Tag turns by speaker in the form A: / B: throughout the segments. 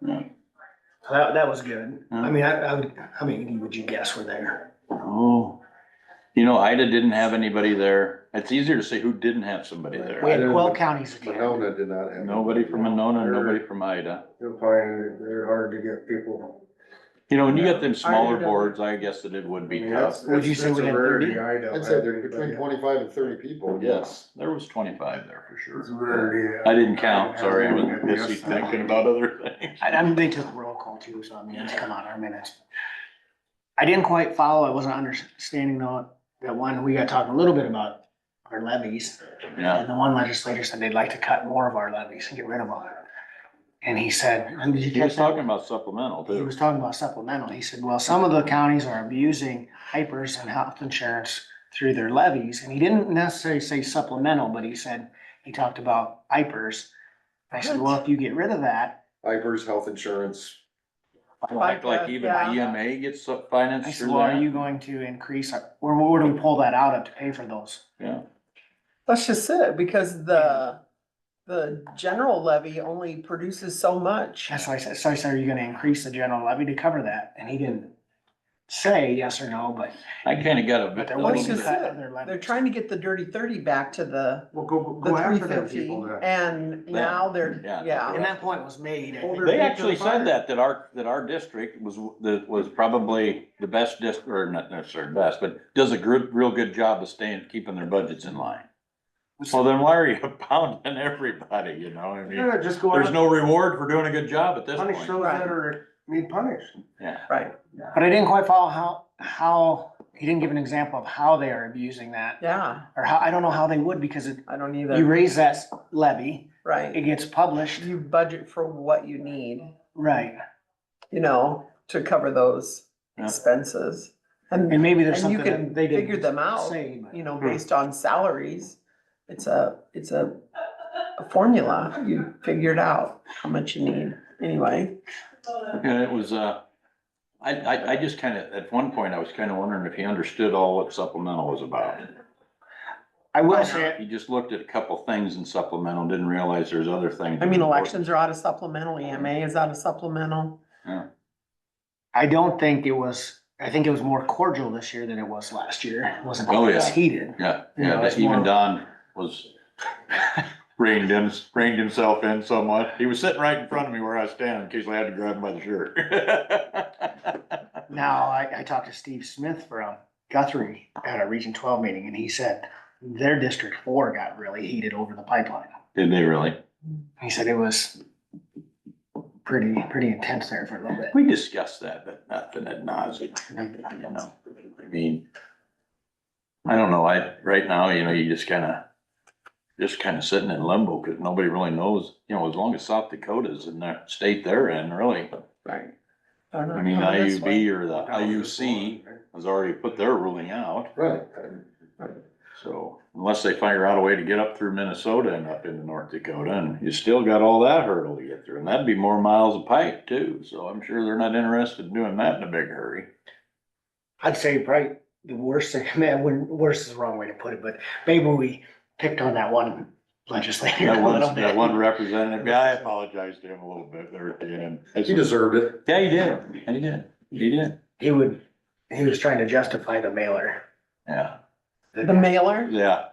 A: Right.
B: That, that was good.
A: Yeah.
C: Uh-huh.
B: I mean, I, I would, how many would you guess were there?
A: Oh, you know, Ida didn't have anybody there. It's easier to say who didn't have somebody
C: We
A: there.
C: had
D: Right.
C: twelve counties attend.
D: Monona did not have.
A: Nobody from Monona, nobody from Ida.
D: You'll find they're hard to get people.
A: You know, when you got them smaller
E: Ida doesn't-
A: boards, I guess that it would be tough.
D: That's-
C: Would you say
D: that's
C: we
D: a
C: had
D: rarity.
C: 30?
D: I don't
F: I'd say
D: have
F: between
D: anybody.
F: twenty-five and thirty people,
A: Yes, there was twenty-five there for
D: It's a
A: sure.
D: rarity.
A: I didn't count, sorry, I was
D: Yes.
A: busy thinking about other things.
C: I, I mean, they took roll call too, so I mean, it's come on our minutes. I didn't quite follow, I wasn't understanding though, that one, we got talking a little bit about our levies.
A: Yeah,
C: And the one legislator said they'd like to cut more of our levies and get rid of them. And he said, and did you
A: he
C: catch
A: was
C: that?
A: talking about supplemental
C: He
A: too.
C: was talking about supplemental. He said, well, some of the counties are abusing hypers and health insurance through their levies. And he didn't necessarily say supplemental, but he said, he talked about hypers. I said, well, if you get rid of that,
B: uh,
F: Ivers Health Insurance,
A: Like, like even
E: Yeah.
A: EMA gets sub-
C: I
A: financed
C: said,
A: through
C: well, are you
A: that.
C: going to increase, our- or where do we pull that out of to pay for those?
A: Yeah,
E: That's just it, because the, the general levy only produces so much.
C: That's why I said, so I said, are you gonna increase the general levy to cover that? And he didn't say yes or no, but,
A: I kinda got a
C: but
A: bit.
C: there
A: a
C: was
E: Which
A: little
C: a
E: is
A: bit-
C: cut
E: it.
C: of their levies.
E: They're trying to get the dirty thirty back to the,
B: Well, go, go-
E: the
B: go
E: three
B: after them
E: fifty,
B: people that.
E: and now they're,
A: Yeah.
E: yeah.
C: And that point was made. I think.
B: Older
A: They
B: Victor
A: actually
B: Fire.
A: said that, that our, that our district was, that was probably the best district, or not necessarily best, but does a good, real good job of staying, keeping their budgets in line. Well, then why are you pounding everybody, you know, I mean,
B: Yeah, just go
A: there's
B: out,
A: no reward for doing a good job at this
B: punish
A: point.
B: those that are, need punished.
E: Right,
C: But I didn't quite follow how, how, he didn't give an example of how they are abusing that,
E: yeah,
C: or how, I don't know how they would, because it,
E: I don't
C: you
E: either,
C: raise that levy, it
E: right.
C: gets published,
E: You budget for what you need,
C: right,
E: you know, to cover those
A: Yeah.
E: expenses. And,
C: and maybe there's
E: and you
C: something
E: can
C: that they didn't.
E: figure them out,
C: say, but-
E: you know, based on salaries. It's a, it's a, a formula, you figure it out, how much you need, anyway.
A: And it was, uh, I, I, I just kinda, at one point, I was kinda wondering if he understood all what supplemental was about.
C: I will say,
A: He just looked at a couple things in supplemental, didn't realize there's other things.
E: I mean, elections are out of supplemental, EMA is out of supplemental.
C: I don't think it was, I think it was more cordial this year than it was last year, it wasn't
A: Oh, yeah.
C: as heated.
A: Yeah,
C: You know,
A: yeah,
C: it's
A: that
C: more-
A: even Don was reined him, reined himself in somewhat. He was sitting right in front of me where I was standing in case I had to grab him by the shirt.
C: Now, I, I talked to Steve Smith from Guthrie at a Region twelve meeting, and he said their District Four got really heated over the pipeline.
A: Did they really?
C: He said it was pretty, pretty intense there for a little bit.
A: We discussed that, but nothing ad nauseam, you know, I mean. I don't know, I, right now, you know, you just kinda, just kinda sitting in limbo, cause nobody really knows, you know, as long as South Dakota's in that state they're in, really.
E: Right.
A: I
E: Oh,
A: mean, IUB or the IUC has already put their ruling out.
F: right,
A: So unless they figure out a way to get up through Minnesota and up into North Dakota, and you still got all that hurdle to get through, and that'd be more miles of pipe too, so I'm sure they're not interested in doing that in a big hurry.
C: I'd say probably the worst thing, man, when, worst is the wrong way to put it, but maybe we picked on that one legislator
A: That
C: a little
A: one, that one
C: bit.
A: representative, yeah, I apologize to him a little bit there at the end.
F: he deserved it.
A: Yeah, he did, and he did, he did,
C: He would, he was trying to justify the mailer.
A: yeah,
E: The mailer,
A: yeah,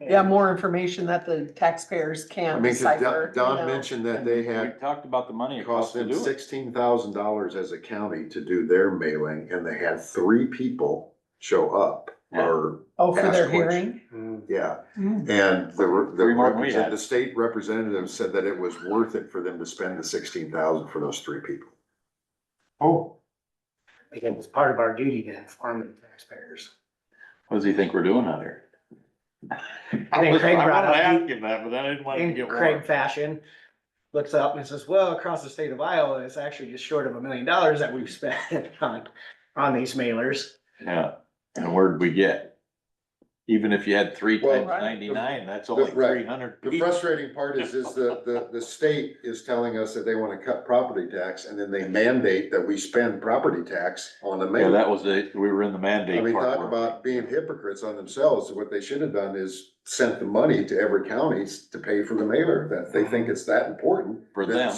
E: yeah, more information that the taxpayers
F: I
E: can't
F: mean, cause
E: decipher.
F: Don-
E: you know.
F: Don mentioned that they
A: we
F: had,
A: talked about the money
F: it
A: it
F: cost
A: costs to
F: them
A: do it.
F: sixteen thousand dollars as a county to do their mailing, and they had three people show up, or,
E: Oh, for their
F: asked
E: hearing?
F: yeah.
E: Mm.
F: And the, re- the,
A: Three more than we
F: represent-
A: had.
F: the state representative said that it was worth it for them to spend the sixteen thousand for those three people.
B: Oh,
C: Because it's part of our duty to inform the taxpayers.
A: What does he think we're doing out here?
C: I think Craig
A: I
C: brought
A: wanted to
C: up,
A: ask him that, but I didn't want him to
C: in
A: get
C: Craig
A: warm.
C: fashion, looks up and says, well, across the state of Iowa, it's actually just short of a million dollars that we've spent on, on these mailers.
A: Yeah, and where'd we get? Even if you had three
F: Well,
A: times
E: right.
A: ninety-nine, that's only
F: Right.
A: three hundred.
F: The frustrating part is, is the, the, the state is telling us that they wanna cut property tax, and then they mandate that we spend property tax on the
A: Yeah,
F: mail.
A: that was the, we were in the
F: I
A: mandate
F: mean,
A: part.
F: talk
A: weren't
F: about being hypocrites on themselves, what they should have done is sent the money to every county to pay for the mailer, that they think it's that important.
A: we? For
F: That's-
A: them.